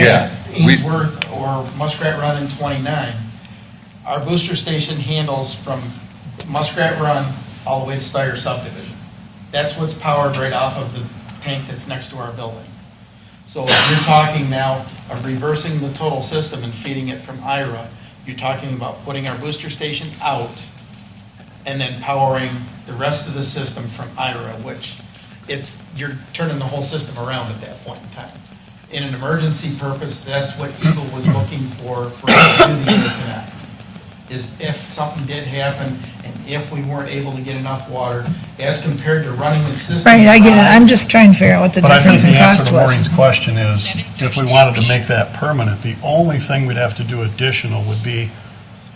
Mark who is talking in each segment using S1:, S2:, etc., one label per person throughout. S1: We-
S2: Ainsworth or Muskrat Run and 29. Our booster station handles from Muskrat Run all the way to Steyer subdivision. That's what's powered right off of the tank that's next to our building. So if you're talking now of reversing the total system and feeding it from IRA. You're talking about putting our booster station out and then powering the rest of the system from IRA, which it's, you're turning the whole system around at that point in time. In an emergency purpose, that's what Eagle was looking for, for us to do the interconnect, is if something did happen and if we weren't able to get enough water, as compared to running the system.
S3: Right, I get it.
S2: live,
S3: I'm just trying to figure out what the
S4: But I think
S3: difference
S4: the
S3: in
S4: answer
S3: cost
S4: to Maureen's
S3: was.
S4: question is, if we wanted to make that permanent, the only thing we'd have to do additional would be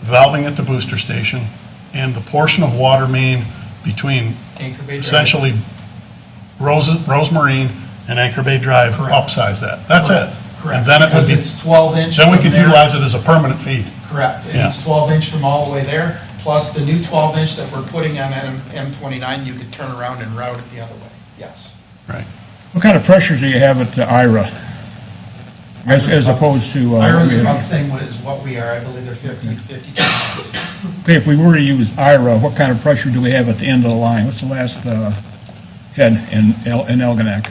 S4: valving at the booster station and the portion of water main between
S2: Anchor Bay Drive.
S4: essentially Rose, Rose Marine and Anchor Bay Drive, upsize that. That's it.
S2: Correct.
S4: And then it would
S2: Because
S4: be,
S2: it's 12 inch.
S4: then we
S2: from
S4: could
S2: there.
S4: utilize it as a permanent feed.
S2: Correct. And
S4: Yeah.
S2: It's 12 inch from all the way there, plus the new 12 inch that we're putting on M29, you could turn around and route it the other way. Yes.
S4: Right.
S5: What kind of pressure do you have at the IRA? As, as opposed to, uh,
S2: IRA's
S5: we have-
S2: about the same as what we are, I believe they're 50, 52 miles.
S5: okay, if we were to use IRA, what kind of pressure do we have at the end of the line? What's the last, uh, head in, El- in Elginak?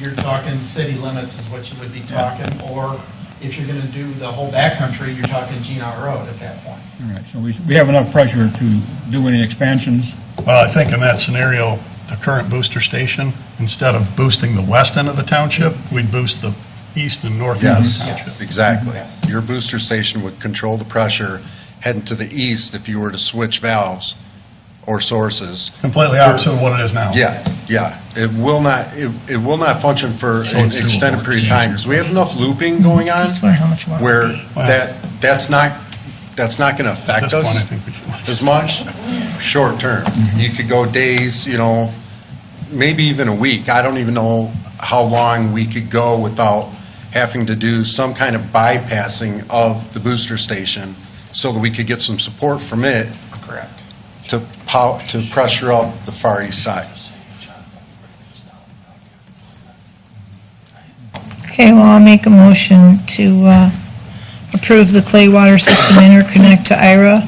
S2: You're talking city limits is what you would be talking, or if you're gonna do the whole backcountry, you're talking Gina Road at that point.
S5: All right, so we, we have enough pressure to do any expansions?
S4: Well, I think in that scenario, the current booster station, instead of boosting the west end of the township, we'd boost the east and north end of the
S1: Yes,
S4: township.
S2: Yes.
S1: exactly.
S2: Yes.
S1: Your booster station would control the pressure heading to the east if you were to switch valves or sources.
S4: Completely opposite of what it is now.
S1: Yeah, yeah. It will not, it, it will not function for
S4: So
S1: an
S4: it's doable.
S1: extended period of time, because we have enough looping going on
S3: Just wondering how much water.
S1: where
S3: would be.
S4: Wow.
S1: that, that's not, that's not gonna
S4: At this
S1: affect
S4: point, I
S1: us
S4: think we should.
S1: as much, short term. You could go days, you know, maybe even a week. I don't even know how long we could go without having to do some kind of bypassing of the booster station so that we could get some support from it. Correct. To pow, to pressure up the far east side.
S3: Okay, well, I'll make a motion to uh, approve the clay water system interconnect to IRA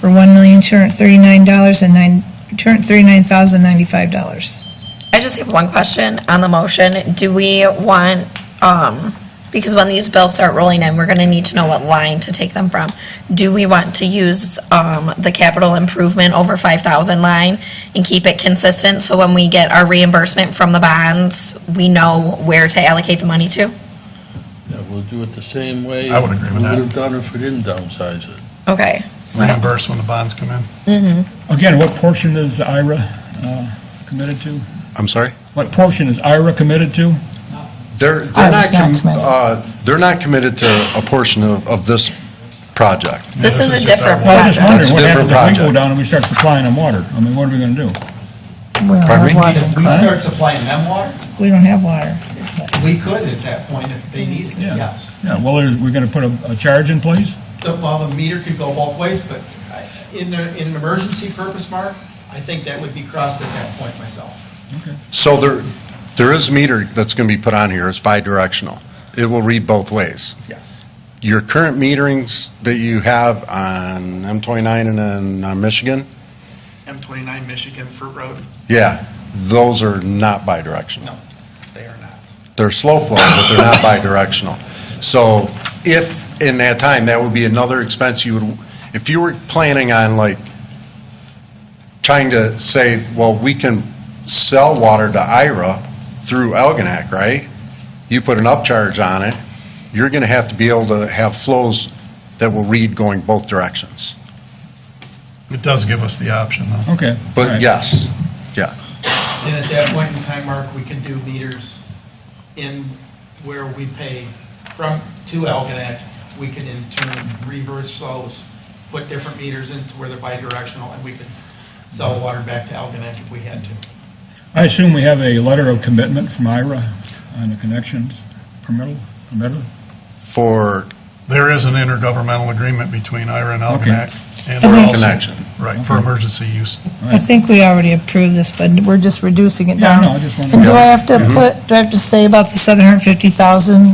S3: for $1,239,000 and nine, $239,095.
S6: I just have one question on the motion. Do we want, um, because when these bills start rolling in, we're gonna need to know what line to take them from. Do we want to use, um, the capital improvement over five thousand line and keep it consistent? So when we get our reimbursement from the bonds, we know where to allocate the money to?
S7: Yeah, we'll do it the same way.
S4: I would agree with that.
S7: We would have done if we didn't downsize it.
S6: Okay. so-
S4: Reimburse when the bonds come in.
S5: Again, what portion is IRA, uh, committed to?
S1: I'm sorry?
S5: What portion is IRA committed to?
S1: They're, they're
S3: I
S1: not,
S3: was not
S1: com-
S3: committed.
S1: uh, they're not committed to a portion of, of this project.
S6: This is a different
S5: Well, I'm just wondering
S6: project.
S1: That's a
S5: what
S1: different
S5: happens if we go
S1: project.
S5: down and we start supplying them water? I mean, what are we gonna do?
S3: We don't
S1: Pardon
S3: have
S1: me?
S2: If
S3: water.
S2: we start supplying them water,
S3: We don't have water.
S2: we could at that point if they needed it,
S5: Yeah.
S2: yes.
S5: Yeah, well, there's- we're gonna put a, a charge in place?
S2: The- Well, the meter could go both ways, but I- in, a- in an emergency purpose, Mark, I think that would be crossed at that point myself.
S1: So there, there is meter that's going to be put on here, it's bidirectional. It will read both ways.
S2: Yes.
S1: Your current meterings that you have on M29 and then on Michigan,
S2: M29 Michigan Fruit Road?
S1: yeah, those are not bidirectional.
S2: No, they are not.
S1: They're slow flow, but they're not bidirectional. So if, in that time, that would be another expense you would, if you were planning on like, trying to say, well, we can sell water to IRA through Elginak, right? You put an upcharge on it, you're gonna have to be able to have flows that will read going both directions.
S4: It does give us the option, though.
S5: Okay. all
S1: But
S5: right.
S1: yes,
S2: And at that point in time, Mark, we can do meters in where we pay from, to Algonac. We can in turn reverse those, put different meters into where they're bidirectional, and we could sell water back to Algonac if we had to.
S5: I assume we have a letter of commitment from IRA on the connections, permittal, permittal?
S1: for
S4: There is an intergovernmental agreement between IRA and
S5: Okay.
S4: Algonac. and
S3: For
S4: we're also-
S1: connection.
S4: Right, for emergency use.
S3: I think we already approved this, but we're just reducing it
S5: Yeah,
S3: down.
S5: no, I just wanted to-
S3: And do I have to put, do I have to say about the 750,000